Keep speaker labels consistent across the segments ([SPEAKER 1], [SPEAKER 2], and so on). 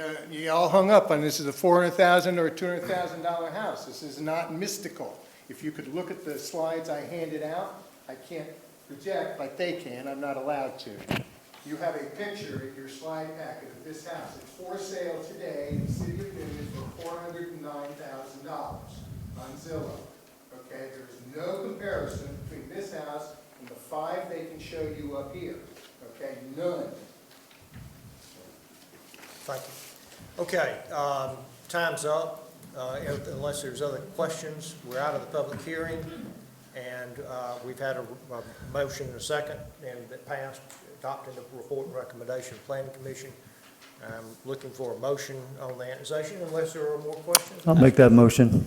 [SPEAKER 1] Uh, You all hung up on this is a four hundred thousand or a two hundred thousand dollar house. This is not mystical. If you could look at the slides I handed out, I can't project, but they can, I'm not allowed to. You have a picture in your slide packet of this house. It's for sale today in the city of Newton for four hundred and nine thousand dollars on Zillow. Okay, there is no comparison between this house and the five they can show you up here. Okay, none.
[SPEAKER 2] Thank you. Okay, um, time's up. Uh, if- Unless there's other questions, we're out of the public hearing, and uh, we've had a a motion and a second, and that passed, adopting the report and recommendation of planning commission. I'm looking for a motion on the annexation, unless there are more questions.
[SPEAKER 3] I'll make that motion.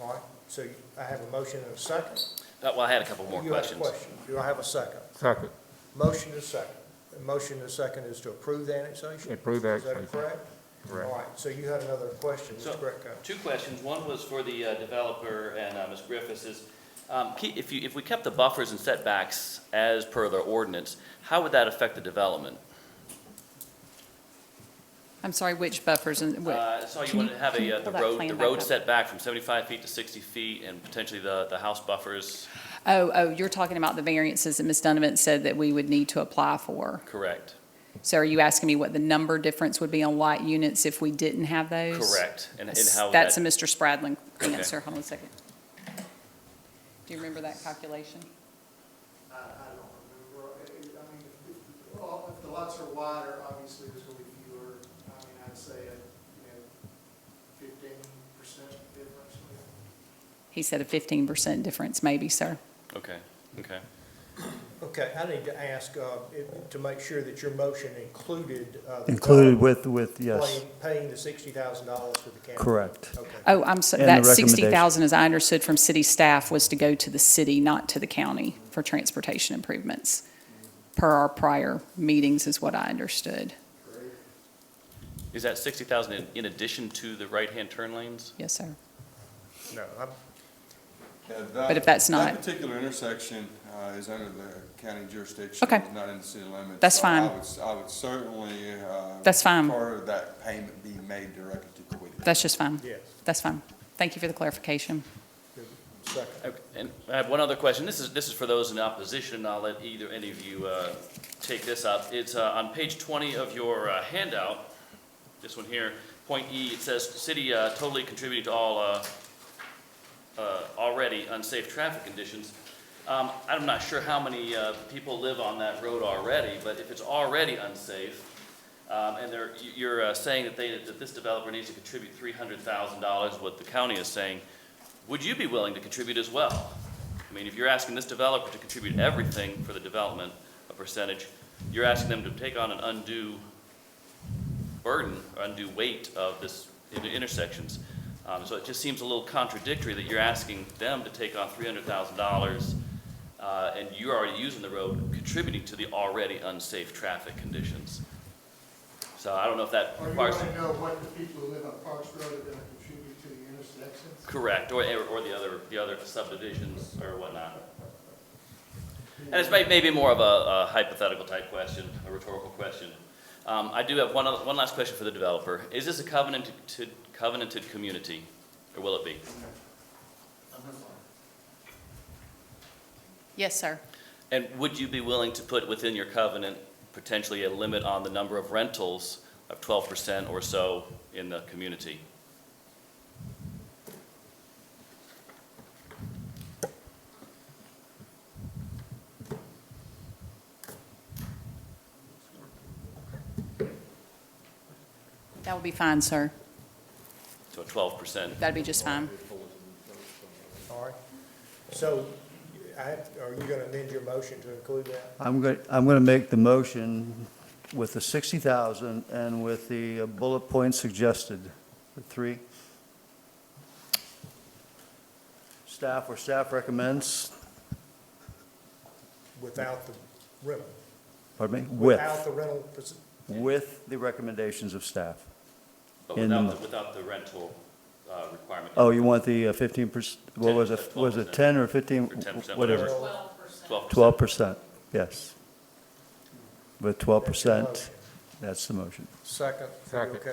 [SPEAKER 2] All right, so I have a motion and a second.
[SPEAKER 4] Uh, Well, I had a couple more
[SPEAKER 2] You have a
[SPEAKER 4] questions.
[SPEAKER 2] question. Do I have a second?
[SPEAKER 5] Second,
[SPEAKER 2] Motion is second. The Motion is second is to approve the annexation?
[SPEAKER 5] Approve the
[SPEAKER 2] Is that
[SPEAKER 5] annexation.
[SPEAKER 2] correct?
[SPEAKER 5] Correct.
[SPEAKER 2] All right, so you had another question,
[SPEAKER 4] So-
[SPEAKER 2] Mr. Greco.
[SPEAKER 4] Two questions. One was for the uh, developer and uh, Ms. Griffiths is, um, ke- if you, if we kept the buffers and setbacks as per the ordinance, how would that affect the development?
[SPEAKER 6] I'm sorry, which buffers and,
[SPEAKER 4] Uh,
[SPEAKER 6] what-
[SPEAKER 4] I saw you
[SPEAKER 6] can
[SPEAKER 4] wanted to have
[SPEAKER 6] can you
[SPEAKER 4] a, uh, the
[SPEAKER 6] pull that
[SPEAKER 4] road,
[SPEAKER 6] plan
[SPEAKER 4] the
[SPEAKER 6] back
[SPEAKER 4] road
[SPEAKER 6] up?
[SPEAKER 4] setback from 75 feet to 60 feet and potentially the, the house buffers,
[SPEAKER 6] Oh, oh, you're talking about the variances that Ms. Donovan said that we would need to apply for.
[SPEAKER 4] correct?
[SPEAKER 6] So are you asking me what the number difference would be on light units if we didn't have those?
[SPEAKER 4] Correct. And and how would
[SPEAKER 6] That's a
[SPEAKER 4] that-
[SPEAKER 6] Mr. Spradlin
[SPEAKER 4] Okay.
[SPEAKER 6] answer. Hold on a second. Do you remember that calculation?
[SPEAKER 1] I, I don't remember, I I mean, if, if, all- if the lots are wider, obviously there's gonna be fewer, I mean, I'd say, uh, you know, fifteen percent difference.
[SPEAKER 6] He said a fifteen percent difference, maybe, sir.
[SPEAKER 4] Okay, okay.
[SPEAKER 2] Okay, I need to ask, uh, it- to make sure that your motion included. uh, the
[SPEAKER 3] Included
[SPEAKER 2] developer
[SPEAKER 3] with, with, yes,
[SPEAKER 2] paying- Paying the sixty thousand dollars to the county.
[SPEAKER 3] correct.
[SPEAKER 2] Okay,
[SPEAKER 6] Oh, I'm, so-
[SPEAKER 3] And the
[SPEAKER 6] that
[SPEAKER 3] recommendation.
[SPEAKER 6] sixty thousand, as I understood from city staff, was to go to the city, not to the county, for transportation improvements, per our prior meetings, is what I understood.
[SPEAKER 4] Is that 60,000 in- in addition to the right-hand turn lanes?
[SPEAKER 6] Yes, sir.
[SPEAKER 2] no, I'm,
[SPEAKER 7] But
[SPEAKER 6] if that's not-
[SPEAKER 7] That particular intersection uh, is under the county jurisdiction.
[SPEAKER 6] Okay.
[SPEAKER 7] It's not in the city limits.
[SPEAKER 6] That's
[SPEAKER 7] So
[SPEAKER 6] fine.
[SPEAKER 7] I would, s- I would certainly. uh,
[SPEAKER 6] That's fine.
[SPEAKER 7] Part of that payment be made directly to Quiddy.
[SPEAKER 6] That's just fine.
[SPEAKER 2] yes,
[SPEAKER 6] That's fine. Thank you for the clarification.
[SPEAKER 2] second.
[SPEAKER 4] Okay, And I have one other question. This is, this is for those in opposition, and I'll let either, any of you uh, take this up. It's uh, on page 20 of your uh, handout, this one here, point E, it says, "City uh, totally contributing to all uh, uh, already unsafe traffic conditions." Um, I'm not sure how many uh, people live on that road already, but if it's already unsafe, um, and they're, you- you're uh, saying that they, that this developer needs to contribute $300,000, what the county is saying, would you be willing to contribute as well? I mean, if you're asking this developer to contribute everything for the development, a percentage, you're asking them to take on an undue burden, or undue weight of this inter- intersections. Um, so it just seems a little contradictory that you're asking them to take on three hundred thousand dollars, uh, and you're already using the road, contributing to the already unsafe traffic conditions. So I don't know if that
[SPEAKER 1] Or you
[SPEAKER 4] requires.
[SPEAKER 1] wanna know what the people who live on Parks Road are gonna contribute to the intersections?
[SPEAKER 4] Correct, or, or the other, the other subdivisions or whatnot. And it's may- maybe more of a a hypothetical type question, a rhetorical question. Um, I do have one, other- one last question for the developer. Is this a covenanted, covenanted community, or will it be?
[SPEAKER 6] Yes, sir.
[SPEAKER 4] And would you be willing to put within your covenant potentially a limit on the number of rentals of twelve percent or so in the community?
[SPEAKER 6] That would be fine, sir.
[SPEAKER 4] So twelve percent?
[SPEAKER 6] That'd be just fine.
[SPEAKER 2] All right, so I, have- are you gonna amend your motion to include that?
[SPEAKER 3] I'm going, I'm going to make the motion with the 60,000 and with the bullet point suggested, the three. Staff, or staff recommends,
[SPEAKER 2] Without the rental?
[SPEAKER 3] pardon me, with,
[SPEAKER 2] Without the rental, pers-
[SPEAKER 3] with the recommendations of staff.
[SPEAKER 4] But
[SPEAKER 3] In the
[SPEAKER 4] without,
[SPEAKER 3] mo-
[SPEAKER 4] the- without the rental uh, requirement?
[SPEAKER 3] Oh, you want the 15%, what was it, was it 10 or 15?
[SPEAKER 4] Or 10%,
[SPEAKER 3] Whatever.
[SPEAKER 2] whatever.
[SPEAKER 4] Twelve
[SPEAKER 3] 12%,
[SPEAKER 4] percent?
[SPEAKER 3] yes. With 12%.
[SPEAKER 2] Motion.
[SPEAKER 3] That's the motion.
[SPEAKER 2] Second. Second.